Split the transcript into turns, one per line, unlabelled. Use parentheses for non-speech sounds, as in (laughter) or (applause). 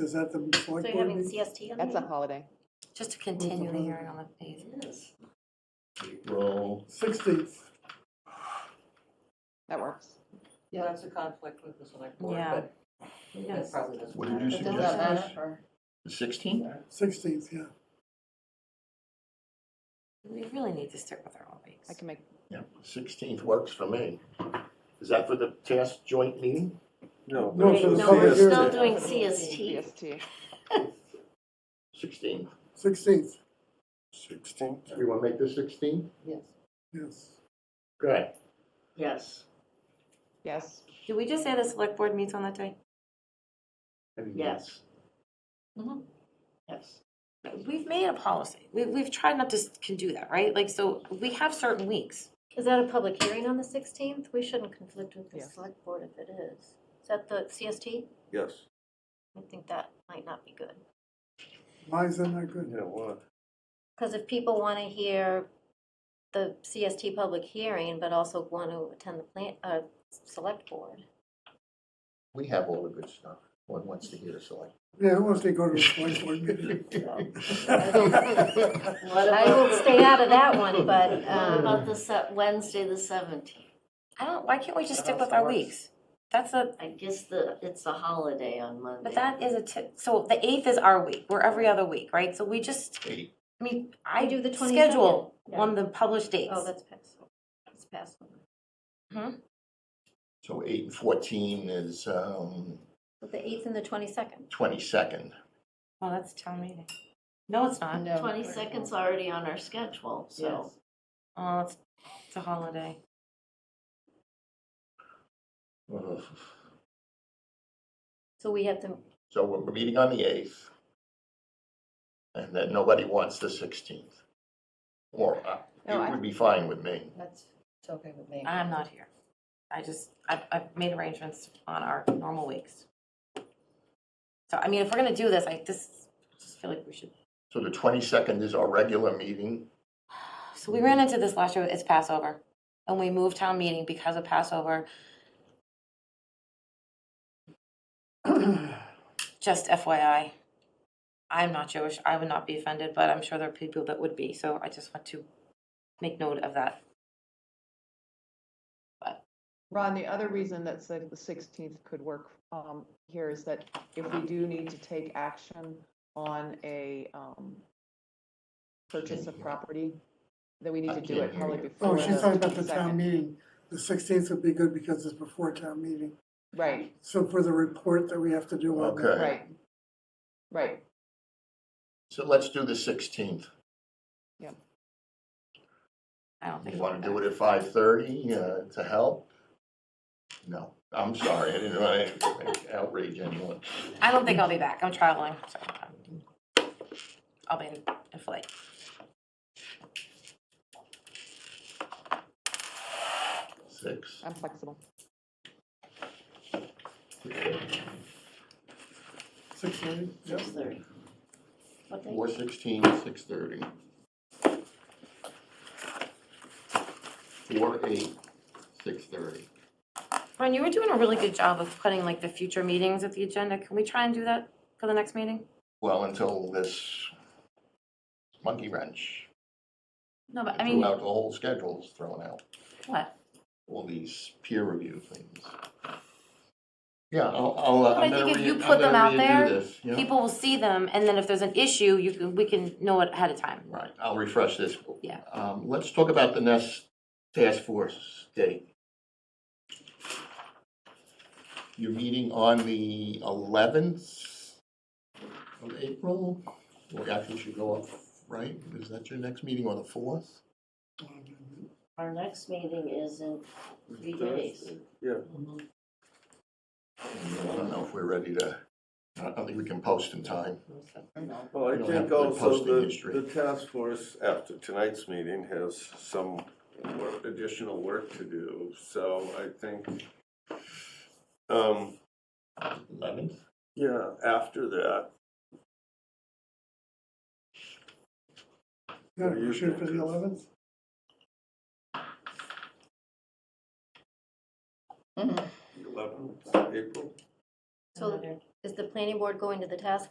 Is that the
So
select
you're having
board?
the CST on
That's a
Mm.
the,
holiday.
Just to continue the hearing on the phase.
April,
Sixteenth,
That works.
Yeah, that's a conflict with the select board,
Yeah.
but that
Yes.
probably doesn't
What did
matter.
you It doesn't suggest? matter the sixteenth?
sixteenth, yeah.
We really need to stick with our own
I
weeks.
can make,
Yeah, sixteenth works for me. Is that for the task joint meeting?
No.
No,
Wait,
so the
no,
public
we're still
hearing.
doing CST.
CST.
Sixteenth.
Sixteenth,
Sixteenth?
You wanna make this sixteenth?
Yes.
yes.
Good.
Yes.
Yes,
Did we just say the select board meets on that day?
Yes.
Mm-hmm.
Mhm.
Yes.
We've made a policy. We, we've tried not to s- can do that, right? Like, so we have certain weeks.
Is that a public hearing on the sixteenth? We shouldn't conflict with the
Yes.
select board if it is. Is that the CST?
Yes.
I think that might not be good.
Why is that not good?
Yeah, what?
Because if people want to hear the CST public hearing, but also want to attend the plant, uh, select board.
We have all the good stuff. One wants to hear the (laughs) select.
Yeah, who wants to go to a select board meeting? (laughs)
I will stay out of that one, (laughs) but, um. About the se- Wednesday, the seventeenth.
I don't, why can't we just stick with our weeks? That's a,
I guess the, it's a holiday on Monday.
but that is a, ti- so the eighth is our week. We're every other week, right? So we just,
Eight.
I mean, I
do the 22nd.
schedule
Yeah.
on the published dates.
Oh, that's past, that's past.
So eight and fourteen is, um,
But the eighth and the twenty-second.
twenty-second.
Well, that's town meeting. No, it's not.
no.
Twenty-second's already on our schedule, so.
Oh, it's, it's a holiday.
Mm-hmm.
So we have to,
So we're meeting on the eighth. And then nobody wants the sixteenth. Or, uh,
No, I-
it would be fine with me.
That's, it's okay with me.
I'm not here. I just, I've, I've made arrangements on our normal weeks. So, I mean, if we're gonna do this, I just, just feel like we should.
So the twenty-second is our regular meeting.
So we ran into this last year, it's Passover, and we moved town meeting because of Passover, (clears throat) just FYI. I'm not Jewish, I would not be offended, but I'm sure there are people that would be, so I just want to make note of that.
Ron, the other reason that said the sixteenth could work um, here is that if we do need to take action on a um, purchase of property, that we need
I
to do
can't
it
hear
probably
you.
before
Oh,
the
she's talking about the
22nd.
town meeting. The sixteenth would be good because it's before town meeting.
Right,
So for the report that we have to do on that.
Okay.
right, right.
So let's do the sixteenth.
I don't think.
You want to do it at five thirty uh, to help? No, I'm sorry, I didn't want to outrage anyone.
I don't think I'll be back, I'm traveling, so. um, I'll be in, in flight.
Six.
I'm flexible.
Six thirty, yep.
Six-thirty. What day?
Four sixteen, six thirty. Four eight, six thirty.
Ron, you were doing a really good job of putting like the future meetings of the agenda. Can we try and do that for the next meeting?
Well, until this monkey wrench
No, but I mean,
threw out the whole schedule's thrown out,
what?
all these peer review things. Yeah, I'll, I'll, uh,
But I
I'm gonna
think if
re-
you
I'm
put them
gonna
out
redo
there,
this, yeah.
People will see them, and then if there's an issue, you can, we can know it ahead of time.
Right, I'll refresh this.
Yeah.
Um, let's talk about the next task force date. You're meeting on the eleventh of April? Well, actually, you should go up, right? Is that your next meeting on the fourth?
Our next meeting is in three days.
Yeah.
I don't know if we're ready to, I don't think we can post in time.
Well, I
We don't have
think
good
also
posting
the,
history.
the task force after tonight's meeting has some work- additional work to do, so I think, um,
Eleventh?
yeah, after that,
Yeah, you shoot for the eleventh?
eleventh, April,
So
another-
is the planning board going to the task